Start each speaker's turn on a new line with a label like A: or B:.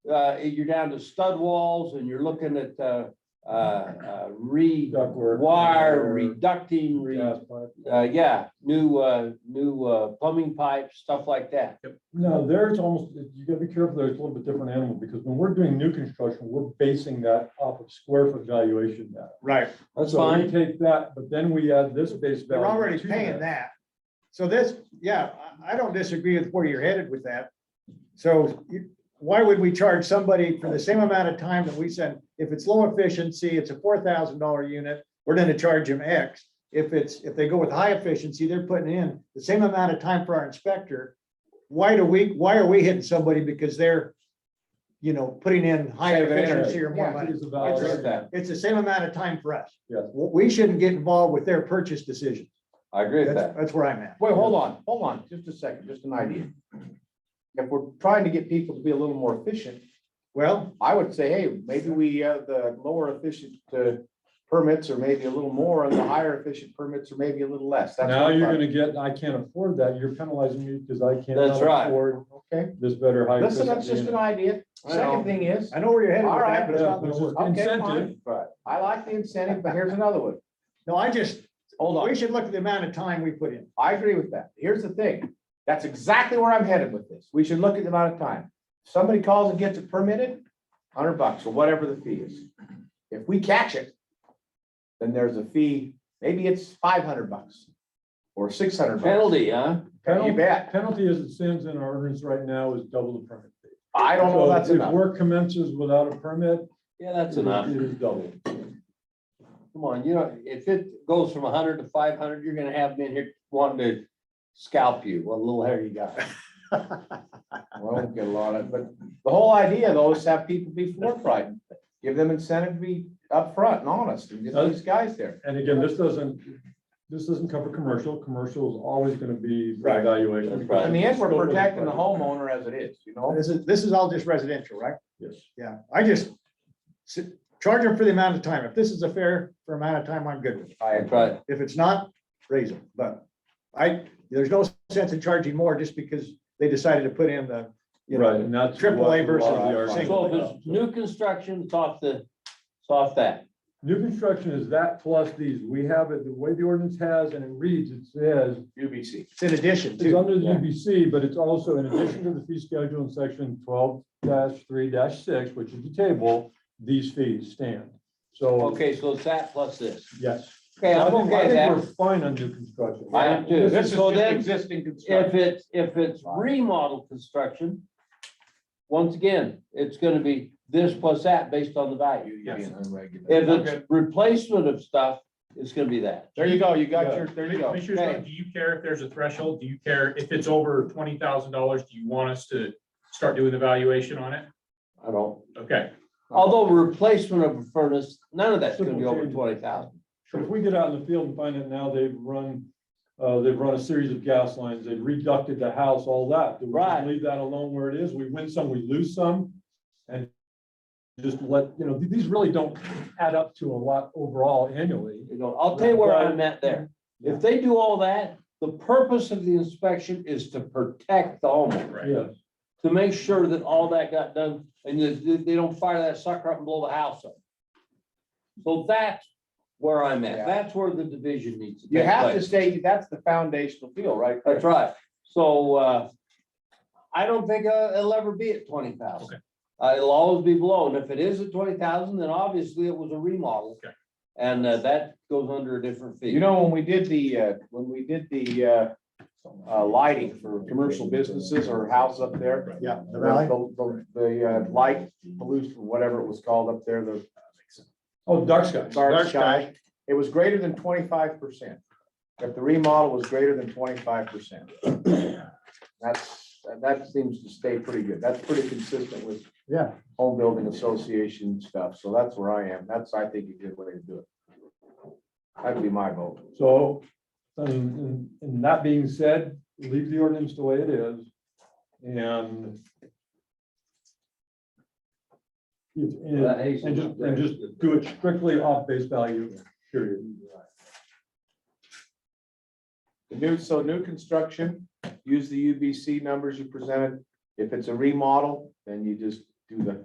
A: uh, you're down to stud walls and you're looking at, uh, uh, uh, re,
B: Ductwork.
A: wire, reducting, re,
B: Gas pipe.
A: uh, yeah, new, uh, new, uh, plumbing pipes, stuff like that.
B: No, there's almost, you gotta be careful, there's a little bit different animal, because when we're doing new construction, we're basing that off of square foot valuation data.
C: Right,
A: That's
B: So we
A: fine.
B: take that, but then we add this base value.
C: they're already
B: to
C: paying that. So this, yeah, I, I don't disagree with where you're headed with that. So you, why would we charge somebody for the same amount of time that we send? If it's low efficiency, it's a four thousand dollar unit, we're gonna charge them X. If it's, if they go with high efficiency, they're putting in the same amount of time for our inspector. Why do we, why are we hitting somebody because they're, you know, putting in high
A: Saving energy.
C: efficiency or more
B: It
C: money?
B: is a
A: I agree
B: valid-
A: with that.
C: It's the same amount of time for us.
B: Yes.
C: We we shouldn't get involved with their purchase decision.
A: I agree with
C: That's,
A: that.
C: that's where I'm at.
D: Wait, hold on, hold on, just a second, just an idea. If we're trying to get people to be a little more efficient,
C: Well,
D: I would say, hey, maybe we have the lower efficient uh, permits are maybe a little more and the higher efficient permits are maybe a little less. That's
B: Now
D: what I'm
B: you're
D: trying-
B: gonna get, I can't afford that, you're penalizing me because I can't
A: That's right.
B: afford
D: Okay,
B: this better height.
D: listen, that's just an idea.
A: I know.
D: Second thing is,
C: I know where you're headed
D: all
C: with
D: right, uh,
C: that,
D: but
C: but
B: Yeah,
D: it's not gonna
B: it's
D: work.
B: just
D: Okay,
B: incentive.
D: fine. I like the incentive, but here's another one.
C: no, I just,
D: Hold on.
C: we should look at the amount of time we put in.
D: I agree with that. Here's the thing. That's exactly where I'm headed with this. We should look at the amount of time. Somebody calls and gets it permitted, hundred bucks or whatever the fee is. If we catch it, then there's a fee, maybe it's five hundred bucks or six hundred.
A: Penalty, huh?
D: You bet.
B: Penalty as it stands in our ordinance right now is double the permit fee.
D: I don't know if
B: So
D: that's
B: If
D: enough.
B: work commences without a permit.
A: Yeah, that's
B: it is-
A: enough.
B: It is double.
A: Come on, you know, if it goes from hundred to five hundred, you're gonna have men here wanting to scalp you, what little hair you got.
D: Well, we'll get a lot of, but the whole idea though is to have people be forthright. Give them incentive to be upfront and honest and get these guys there.
B: And again, this doesn't, this doesn't cover commercial. Commercial is always gonna be
D: Right.
B: evaluation.
A: That's right.
D: In the end, we're protecting the homeowner as it is, you know?
C: This is, this is all just residential, right?
B: Yes.
C: Yeah, I just s- charge them for the amount of time. If this is a fair, for amount of time, I'm good with it.
D: I-
A: That's right.
C: If it's not, raise them, but I, there's no sense in charging more just because they decided to put in the, you
B: Right,
C: know,
B: and that's.
C: triple
B: what
C: A versus
B: lot of the
C: single.
A: So if
B: argument
A: it's new construction, it's off the, it's off that.
B: is. New construction is that plus these. We have it, the way the ordinance has and it reads, it says,
D: UBC.
C: it's in addition
B: it's
C: to.
B: under the
D: Yeah.
B: UBC, but it's also in addition to the fee schedule in section twelve three six, which is the table, these fees stand. So,
A: Okay, so it's that plus this.
B: yes.
A: Okay,
B: I
A: I'm
B: think-
A: okay
B: I
A: with
B: think
A: that.
B: We're fine on new construction.
A: I am too.
B: This is-
A: So then,
D: existing
A: If it's, if it's remodel construction, once again, it's gonna be this plus that based on the value. If it's replacement of stuff, it's gonna be that.
D: There you go, you got your, there you go.
E: Commissioner Scott, do you care if there's a threshold? Do you care if it's over twenty thousand dollars? Do you want us to start doing the valuation on it?
A: I don't,
E: Okay,
A: although replacement of a furnace, none of that's gonna be over twenty thousand.
B: If we get out in the field and find it now, they've run, uh, they've run a series of gas lines, they've reducted the house, all that. Do we just
A: Right.
B: Leave that alone where it is. We win some, we lose some. And just let, you know, th- these really don't add up to a lot overall annually.
A: You know, I'll tell you where I'm at there. If they do all that, the purpose of the inspection is to protect the homeowner,
E: right.
B: Yes,
A: to make sure that all that got done and that they, they don't fire that sucker up and blow the house up. So that's where I'm at.
D: Yeah.
A: That's where the division needs to
D: You
A: take
D: have to
A: place.
D: stay, that's the foundational deal, right? there.
A: That's right. So, uh, I don't think uh, it'll ever be at twenty thousand. Uh, it'll always be below. And if it is at twenty thousand, then obviously it was a remodel.
E: Okay.
A: And uh, that goes under a different fee.
D: You know, when we did the, uh, when we did the, uh, uh, lighting for commercial businesses or house up there.
C: Yeah, the rally.
D: The, the, the, uh, light pollution, whatever it was called up there, the
B: oh, dark sky.
D: dark sky, it was greater than twenty-five percent. If the remodel was greater than twenty-five percent. That's, that seems to stay pretty good. That's pretty consistent with
C: Yeah.
D: home building association stuff, so that's where I am. That's, I think, a good way to do it. That'd be my vote.
B: So, um, and, and that being said, leave the ordinance the way it is, and if- and, and just, and just do it strictly off base value, period.
D: The new, so new construction, use the UBC numbers you presented. If it's a remodel, then you just do the